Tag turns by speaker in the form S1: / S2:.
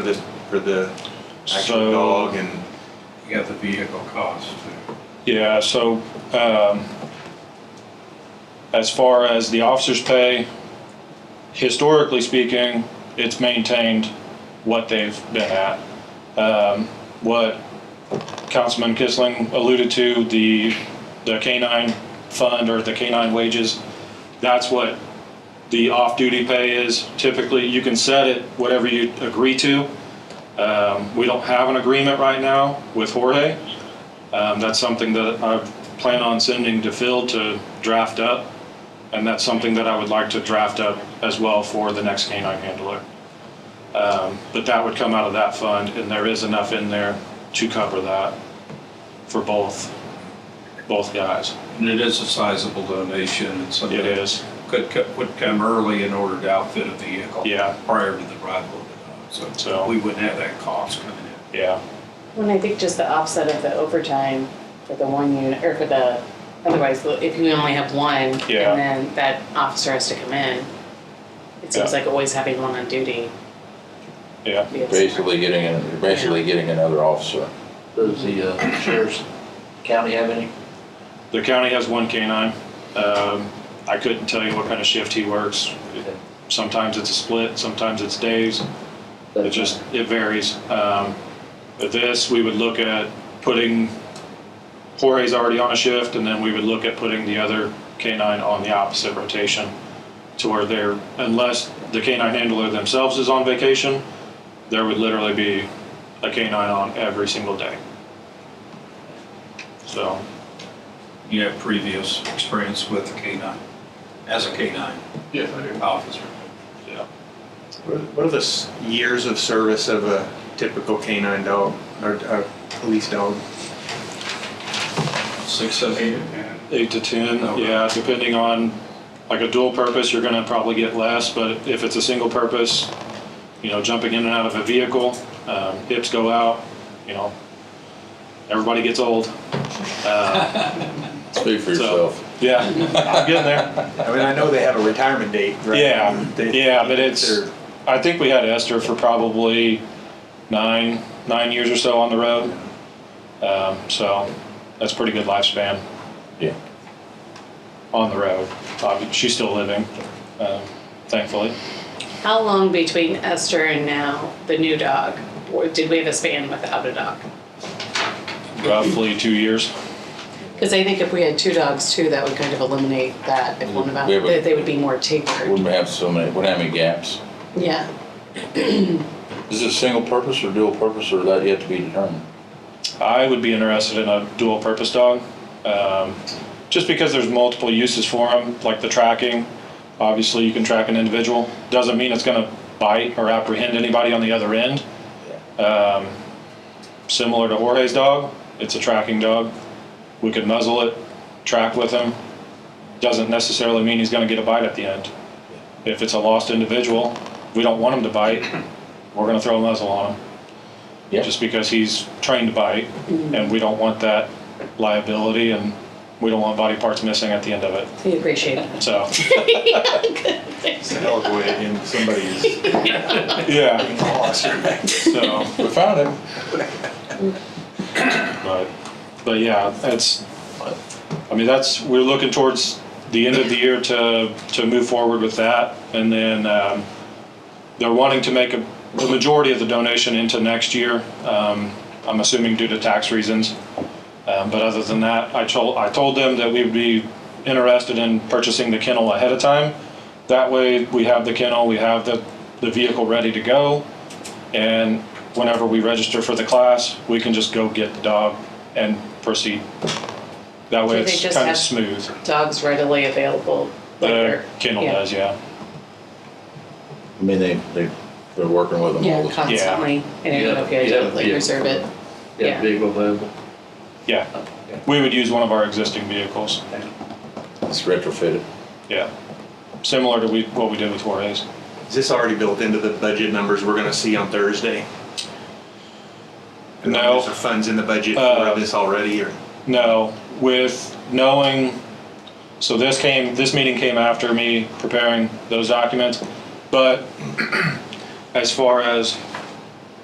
S1: For this, for the actual
S2: So-
S1: dog and,
S3: You got the vehicle cost too.
S2: Yeah, so, um, as far as the officers' pay, historically speaking, it's maintained what they've been at. Um, what Councilman Kissling alluded to, the, the K-9 fund or the K-9 wages, that's what the off-duty pay is. Typically, you can set it whatever you agree to. Um, we don't have an agreement right now with Jorge. Um, that's something that I plan on sending to Phil to draft up, and that's something that I would like to draft up as well for the next canine handler. Um, but that would come out of that fund, and there is enough in there to cover that for both, both guys.
S3: And it is a sizable donation and
S2: It
S3: something.
S2: is,
S3: Could, co- would come early in order to outfit a vehicle.
S2: Yeah.
S3: Prior to the arrival of the dog,
S2: So-
S3: so we wouldn't have that cost coming in.
S2: yeah,
S4: Well, and I think just the offset of the overtime for the one unit, or for the, otherwise, if you only have one, and
S2: Yeah.
S4: then that officer has to come in, it seems
S2: Yeah.
S4: like always having one on duty.
S2: yeah.
S4: would be a-
S5: Basically getting, an- basically getting another officer.
S6: Does the uh, sheriff's county have any?
S2: The county has one canine. Um, I couldn't tell you what kind of shift he works. Sometimes it's a split, sometimes it's days. It just, it varies. Um, but this, we would look at putting, Jorge's already on a shift, and then we would look at putting the other canine on the opposite rotation to where they're, unless the canine handler themselves is on vacation, there would literally be a canine on every single day. So,
S3: You have previous experience with the K-9, as a K-9
S1: yeah, I do.
S3: officer.
S2: yeah.
S1: What are- what are the s- years of service of a typical canine dog or a police dog?
S3: Six, seven,
S2: Eight to ten,
S3: Okay.
S2: yeah, depending on, like a dual purpose, you're gonna probably get less, but if it's a single purpose, you know, jumping in and out of a vehicle, um, hips go out, you know, everybody gets old. Uh,
S5: Speak for
S2: So-
S5: yourself.
S2: yeah, I'm getting there.
S1: I mean, I know they have a retirement date, right?
S2: Yeah,
S1: They-
S2: yeah, but it's,
S1: they're-
S2: I think we had Esther for probably nine, nine years or so on the road. Um, so that's pretty good lifespan
S5: Yeah.
S2: on the road. Obvi- She's still living, um, thankfully.
S4: How long between Esther and now, the new dog, or did we have a span without a dog?
S2: roughly two years.
S4: Because I think if we had two dogs too, that would kind of eliminate that, if one of them,
S5: We have a-
S4: that they would be more tapered,
S5: Wouldn't have so many, wouldn't have any gaps.
S4: yeah.
S5: Is it single purpose or dual purpose or that yet to be determined?
S2: I would be interested in a dual purpose dog. Um, just because there's multiple uses for them, like the tracking. Obviously, you can track an individual. Doesn't mean it's going to bite or apprehend anybody on the other end. Um, similar to Jorge's dog, it's a tracking dog. We could muzzle it, track with him. Doesn't necessarily mean he's going to get a bite at the end. If it's a lost individual, we don't want him to bite. We're going to throw a muzzle on him.
S5: Yeah.
S2: Just because he's trained to bite, and we don't want that liability, and we don't want body parts missing at the end of it.
S4: We appreciate it.
S2: So,
S1: It's a hell of a way to end somebody's
S2: yeah,
S1: loss.
S2: so,
S5: We found him.
S2: but, but yeah, that's, I mean, that's, we're looking towards the end of the year to, to move forward with that. And then, um, they're wanting to make a, the majority of the donation into next year. Um, I'm assuming due to tax reasons. Um, but other than that, I told, I told them that we would be interested in purchasing the kennel ahead of time. That way, we have the kennel, we have the, the vehicle ready to go. And whenever we register for the class, we can just go get the dog and proceed. That way,
S4: Do they
S2: it's
S4: just
S2: kind of
S4: have-
S2: smooth.
S4: Dogs readily available.
S2: The
S4: later.
S2: kennel
S4: Yeah.
S2: does, yeah.
S5: I mean, they, they, they're working with them all
S4: Yeah,
S5: the time.
S4: constantly, and I don't know if you guys
S6: Yeah,
S4: would, like
S6: yeah.
S4: reserve it. Yeah.
S6: Vehicle available?
S2: Yeah, we would use one of our existing vehicles.
S5: It's retrofitted.
S2: Yeah, similar to we, what we did with Juarez.
S1: Is this already built into the budget numbers we're gonna see on Thursday?
S2: No.
S1: Is there funds in the budget
S2: Uh,
S1: for this already or?
S2: No, with knowing, so this came, this meeting came after me preparing those documents, but as far as